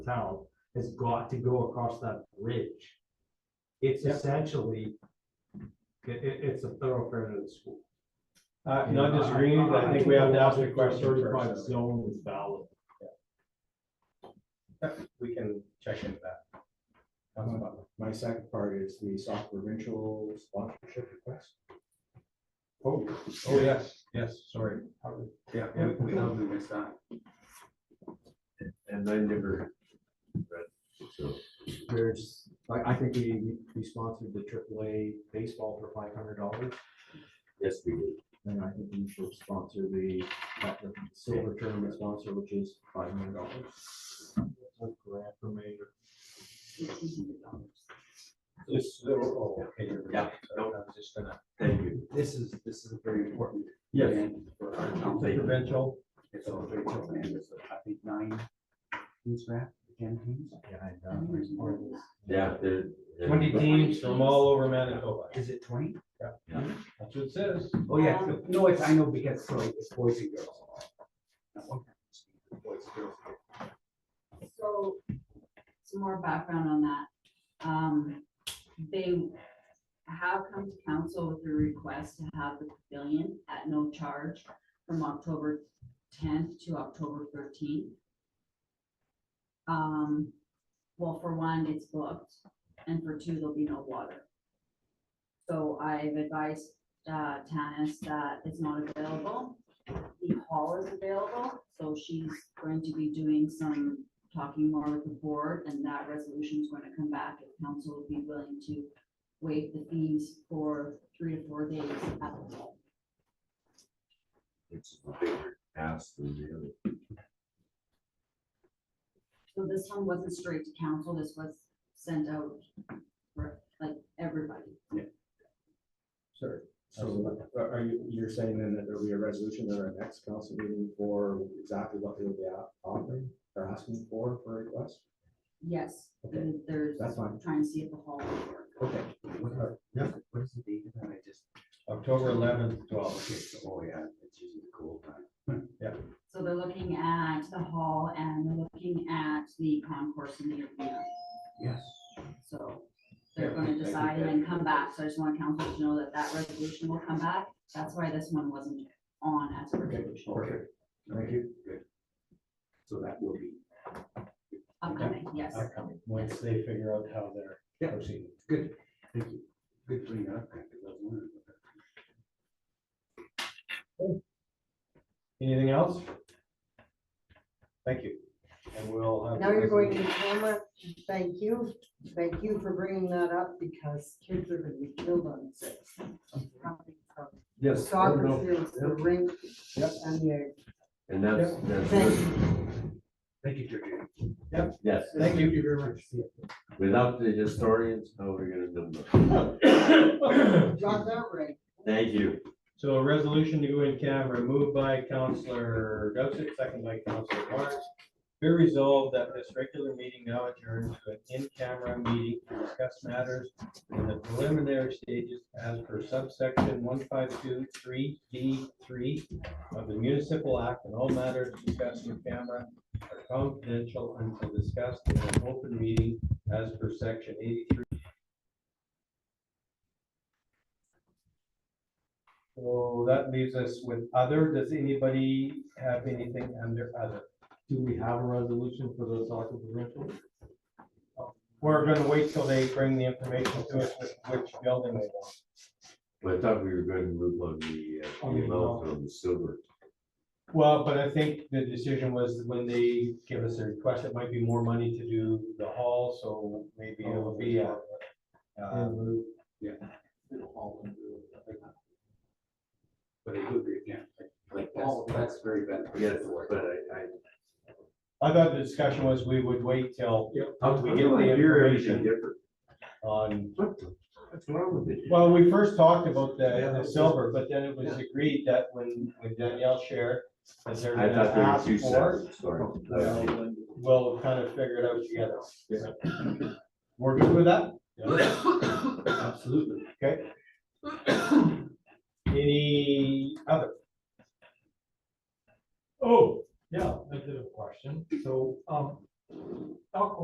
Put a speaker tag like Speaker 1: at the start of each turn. Speaker 1: town has got to go across that bridge. It's
Speaker 2: Yep.
Speaker 1: essentially, i- i- it's a thoroughfare to the school.
Speaker 2: Uh, not disagreeing, but I think we have to ask the question
Speaker 1: Certified
Speaker 2: first.
Speaker 1: zone is valid.
Speaker 2: We can check into that. That's fine.
Speaker 3: Uh, My second part is the South Provincial sponsorship request.
Speaker 2: Oh, oh, yes, yes, sorry.
Speaker 4: Yeah, we, we totally missed that.
Speaker 5: And I never read, so.
Speaker 3: There's, I, I think we, we sponsored the AAA baseball for five hundred dollars.
Speaker 5: Yes, we did.
Speaker 3: And I think we should sponsor the, that the silver tournament sponsor, which is five hundred dollars.
Speaker 2: This, oh, okay. you're right.
Speaker 4: Yeah,
Speaker 2: So I was just gonna.
Speaker 4: Thank you. This is, this is a very important. event For our town.
Speaker 2: Provincial,
Speaker 4: It's a very important, and it's, I think, nine teams left, ten teams.
Speaker 5: Yeah, there. there-
Speaker 2: twenty teams from all over Manitoba.
Speaker 4: Is it twenty?
Speaker 2: That's what it says.
Speaker 4: Oh, yeah, so- no, it's, I know, because, so it's boys and girls. Now, what happens to the Boys and girls.
Speaker 6: So, some more background on that. Um, they have come to council with a request to have the pavilion at no charge from October tenth to October thirteenth. Um, well, for one, it's booked, and for two, there'll be no water. So I've advised, uh, Tanis that it's not available. The hall is available, so she's going to be doing some talking more with the board, and that resolution is going to come back, if council would be willing to waive the fees for three to four days at the mall.
Speaker 5: It's a bigger ask than the other.
Speaker 6: So this one wasn't straight to council, this was sent out for, like, everybody.
Speaker 3: Sure. So uh, are are you, you're saying then that there'll be a resolution at our next council meeting for exactly what they'll be a- offering or asking for, for a request?
Speaker 6: Yes,
Speaker 3: Okay,
Speaker 6: there's,
Speaker 3: that's fine.
Speaker 6: trying to see if the hall will work.
Speaker 3: Okay.
Speaker 4: What are, what is the date of that? I just,
Speaker 2: October eleventh,
Speaker 4: oh,
Speaker 2: twelve. Hmm,
Speaker 4: okay, so, oh, yeah, it's usually the cool time.
Speaker 6: So they're looking at the hall and they're looking at the concourse in the arena.
Speaker 4: Yes.
Speaker 6: So
Speaker 4: Yeah,
Speaker 6: they're
Speaker 4: I
Speaker 6: gonna
Speaker 4: think
Speaker 6: decide and
Speaker 4: that-
Speaker 6: then come back, so I just want council to know that that resolution will come back, that's why this one wasn't on as a resolution.
Speaker 4: Okay. Thank you. Good. So that will be.
Speaker 6: Upcoming, yes,
Speaker 2: Upcoming, once they figure out how they're
Speaker 4: Yeah.
Speaker 2: proceeding.
Speaker 4: Good, thank you. Good bringing it up. I think that's one of the-
Speaker 2: Anything else? Thank you. And we'll have.
Speaker 7: Now you're going to camera, thank you, thank you for bringing that up, because kids are gonna be killed on this.
Speaker 2: Yes.
Speaker 7: Soccer fields, the rink,
Speaker 2: Yep.
Speaker 7: and the,
Speaker 5: And that's,
Speaker 7: thank
Speaker 5: that's,
Speaker 7: you.
Speaker 4: Thank you, George.
Speaker 5: yes,
Speaker 2: Thank you very much.
Speaker 5: without the historians, how are we gonna number?
Speaker 7: Got that right.
Speaker 5: Thank you.
Speaker 2: So a resolution to go in camera, moved by Counselor Gossett, second by Counselor Marks. Be resolved that this regular meeting now adjourned to an in-camera meeting to discuss matters in the preliminary stages as per subsection one five two three D three of the municipal act and all matters discussed in camera are confidential until discussed in an open meeting as per section eighty-three. So that leaves us with other. Does anybody have anything under other?
Speaker 1: Do we have a resolution for those occupancy?
Speaker 2: We're gonna wait till they bring the information to us with which building they want.
Speaker 5: But I thought we were going to move on the, uh,
Speaker 1: On the
Speaker 5: amount on the silver.
Speaker 2: Well, but I think the decision was when they give us a request, it might be more money to do the hall, so maybe it'll be uh, a. um,
Speaker 4: Yeah. But I do agree, yeah, like- like, that's, that's very
Speaker 5: Yes,
Speaker 4: beneficial. for it.
Speaker 5: but I, I.
Speaker 2: I thought the discussion was we would wait till
Speaker 5: How
Speaker 2: we get the
Speaker 5: You're anything
Speaker 2: information?
Speaker 5: different.
Speaker 2: on,
Speaker 5: What the, what's wrong with it?
Speaker 2: well, we first talked about the, the silver, but then it was agreed that when, when Danielle shared. That they're
Speaker 5: I
Speaker 2: gonna
Speaker 5: thought there were
Speaker 2: ask
Speaker 5: two
Speaker 2: for,
Speaker 5: sets, sorry.
Speaker 2: well, we'll kind of figure it out together. We're good with that?
Speaker 4: Absolutely.
Speaker 2: Okay. Any other?
Speaker 1: Oh, yeah, I did a question. So, um, Elk